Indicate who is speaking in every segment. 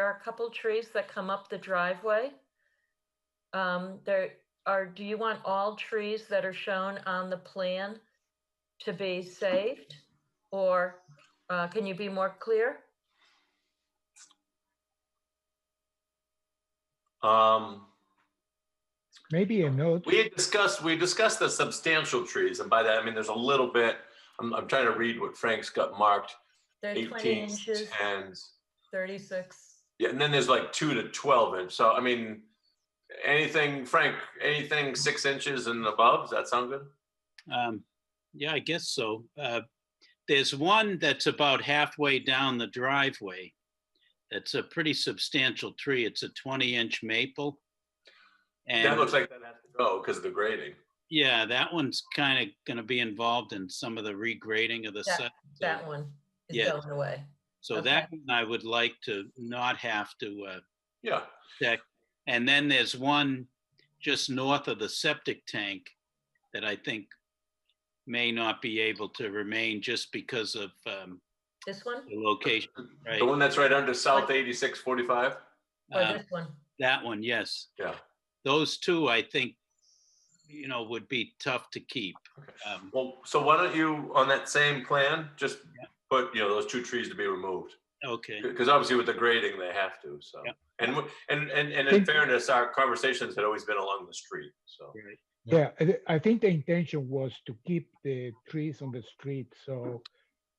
Speaker 1: are a couple trees that come up the driveway. Um, there are, do you want all trees that are shown on the plan to be saved? Or, uh, can you be more clear?
Speaker 2: Um,
Speaker 3: Maybe a note,
Speaker 2: we had discussed, we discussed the substantial trees, and by that, I mean, there's a little bit, I'm, I'm trying to read what Frank's got marked,
Speaker 1: They're twenty
Speaker 2: 18,
Speaker 1: inches,
Speaker 2: 10s.
Speaker 1: thirty-six.
Speaker 2: Yeah, and then there's like two to 12 inch, so I mean, anything, Frank, anything six inches and above, does that sound good?
Speaker 4: Um, yeah, I guess so. Uh, there's one that's about halfway down the driveway. That's a pretty substantial tree. It's a twenty inch maple.
Speaker 2: That
Speaker 4: And
Speaker 2: looks like that has to go because of the grading.
Speaker 4: yeah, that one's kind of gonna be involved in some of the regrading of the
Speaker 1: That-
Speaker 4: site. so-
Speaker 1: That one is
Speaker 4: Yeah.
Speaker 1: going away.
Speaker 4: So
Speaker 1: okay.
Speaker 4: that one I would like to not have to, uh,
Speaker 2: Yeah,
Speaker 4: And then there's one just north of the septic tank that I think may not be able to remain just because of um,
Speaker 1: This one
Speaker 4: the location, right?
Speaker 2: the one that's right under South 8645?
Speaker 1: or
Speaker 4: Uh,
Speaker 1: this one?
Speaker 4: That one, yes.
Speaker 2: Yeah.
Speaker 4: Those two, I think, you know, would be tough to keep.
Speaker 2: Okay.
Speaker 4: Um,
Speaker 2: Well, so why don't you, on that same plan, just put, you know, those two trees to be removed?
Speaker 4: Okay,
Speaker 2: Because obviously with the grading, they have to, so.
Speaker 4: Yeah.
Speaker 2: And, w- and, and, and in fairness, our conversations had always been along the street, so.
Speaker 4: right.
Speaker 3: yeah, I thi- I think the intention was to keep the trees on the street, so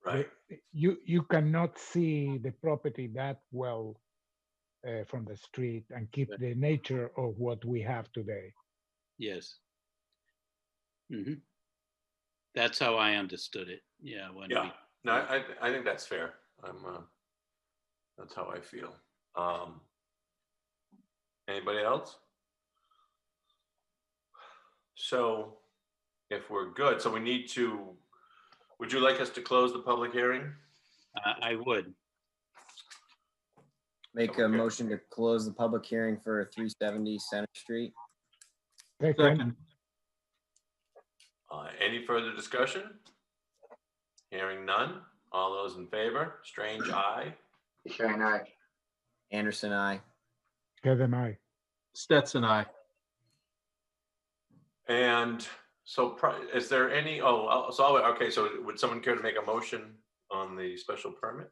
Speaker 2: Right,
Speaker 3: the- you, you cannot see the property that well uh, from the street and keep
Speaker 4: Right.
Speaker 3: the nature of what we have today.
Speaker 4: yes. Mhm. That's how I understood it, yeah. when we-
Speaker 2: yeah. No, I, I- I think that's fair. I'm, uh, that's how I feel. Um, anybody else? So if we're good, so we need to, would you like us to close the public hearing?
Speaker 4: I I would,
Speaker 5: Make a
Speaker 2: Okay.
Speaker 5: motion to close the public hearing for three seventy Center Street.
Speaker 3: Second,
Speaker 2: Uh, any further discussion? Hearing none. All those in favor? Strange eye.
Speaker 6: Shine eye.
Speaker 5: Anderson, I.
Speaker 3: Kevin, I,
Speaker 7: Stetson, I.
Speaker 2: And so pri- is there any, oh, I'll- so, I'll- okay, so would someone care to make a motion on the special permit?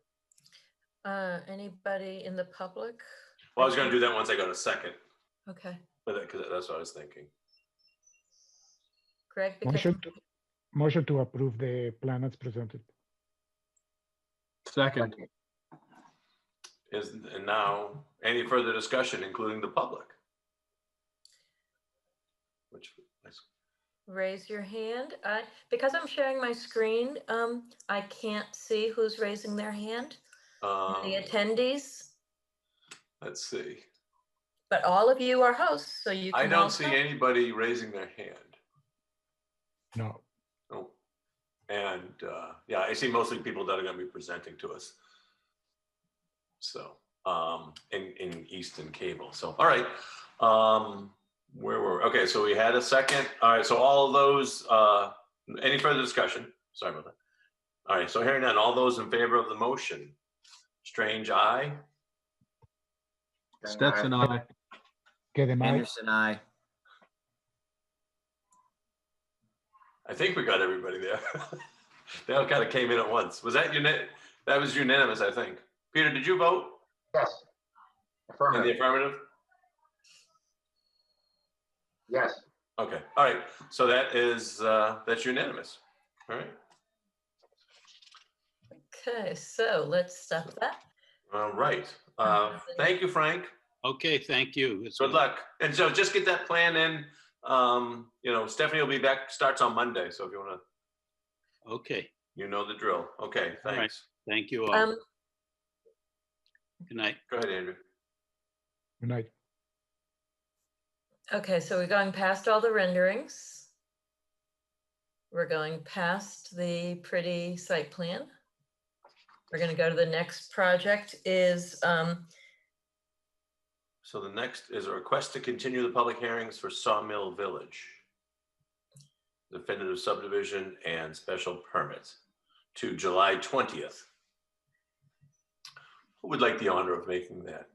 Speaker 1: Uh, anybody in the public?
Speaker 2: Well, I was gonna do that once I got a second,
Speaker 1: Okay,
Speaker 2: but that, cause that's what I was thinking.
Speaker 1: Greg, because
Speaker 3: motion to, motion to approve the plan as presented.
Speaker 7: Second,
Speaker 2: Is, and now, any further discussion, including the public? Which, is-
Speaker 1: raise your hand. I, because I'm sharing my screen, um, I can't see who's raising their hand.
Speaker 2: um,
Speaker 1: The attendees,
Speaker 2: let's see.
Speaker 1: but all of you are hosts, so you can.
Speaker 2: I don't
Speaker 1: also-
Speaker 2: see anybody raising their hand.
Speaker 3: No,
Speaker 2: Oh, and uh, yeah, I see mostly people that are going to be presenting to us. So, um, in in Easton Cable. So, all right, um, where were we? okay? So we had a second. All right. So all of those. Uh, any further discussion? Sorry about that. All right. So hearing none, all those in favor of the motion. Strange eye.
Speaker 6: Shine
Speaker 7: Stetson, I.
Speaker 3: Kevin, I,
Speaker 5: Anderson, I.
Speaker 2: I think we got everybody there. they all kind of came in at once. Was that unanimous? That was unanimous, I think. Peter, did you vote
Speaker 6: Yes.
Speaker 2: in the
Speaker 6: Affirmative.
Speaker 2: affirmative?
Speaker 6: Yes.
Speaker 2: Okay, all right, so that is, uh, that's unanimous, all right?
Speaker 1: Okay, so let's stop that.
Speaker 2: All right, uh, thank you, Frank,
Speaker 4: okay, thank you. It's
Speaker 2: good
Speaker 4: all-
Speaker 2: luck. And so just get that plan in, um, you know, Stephanie will be back, starts on Monday, so if you wanna,
Speaker 4: Okay,
Speaker 2: you know the drill. Okay,
Speaker 4: All right.
Speaker 2: thanks.
Speaker 4: thank you all.
Speaker 1: Um,
Speaker 4: Good night.
Speaker 2: Go ahead, Andrew.
Speaker 3: good night.
Speaker 1: okay, so we're going past all the renderings. We're going past the pretty site plan. We're gonna go to the next project is, um,
Speaker 2: So the next is a request to continue the public hearings for Sawmill Village. Definitive subdivision and special permit to July twentieth. Who would like the honor of making that?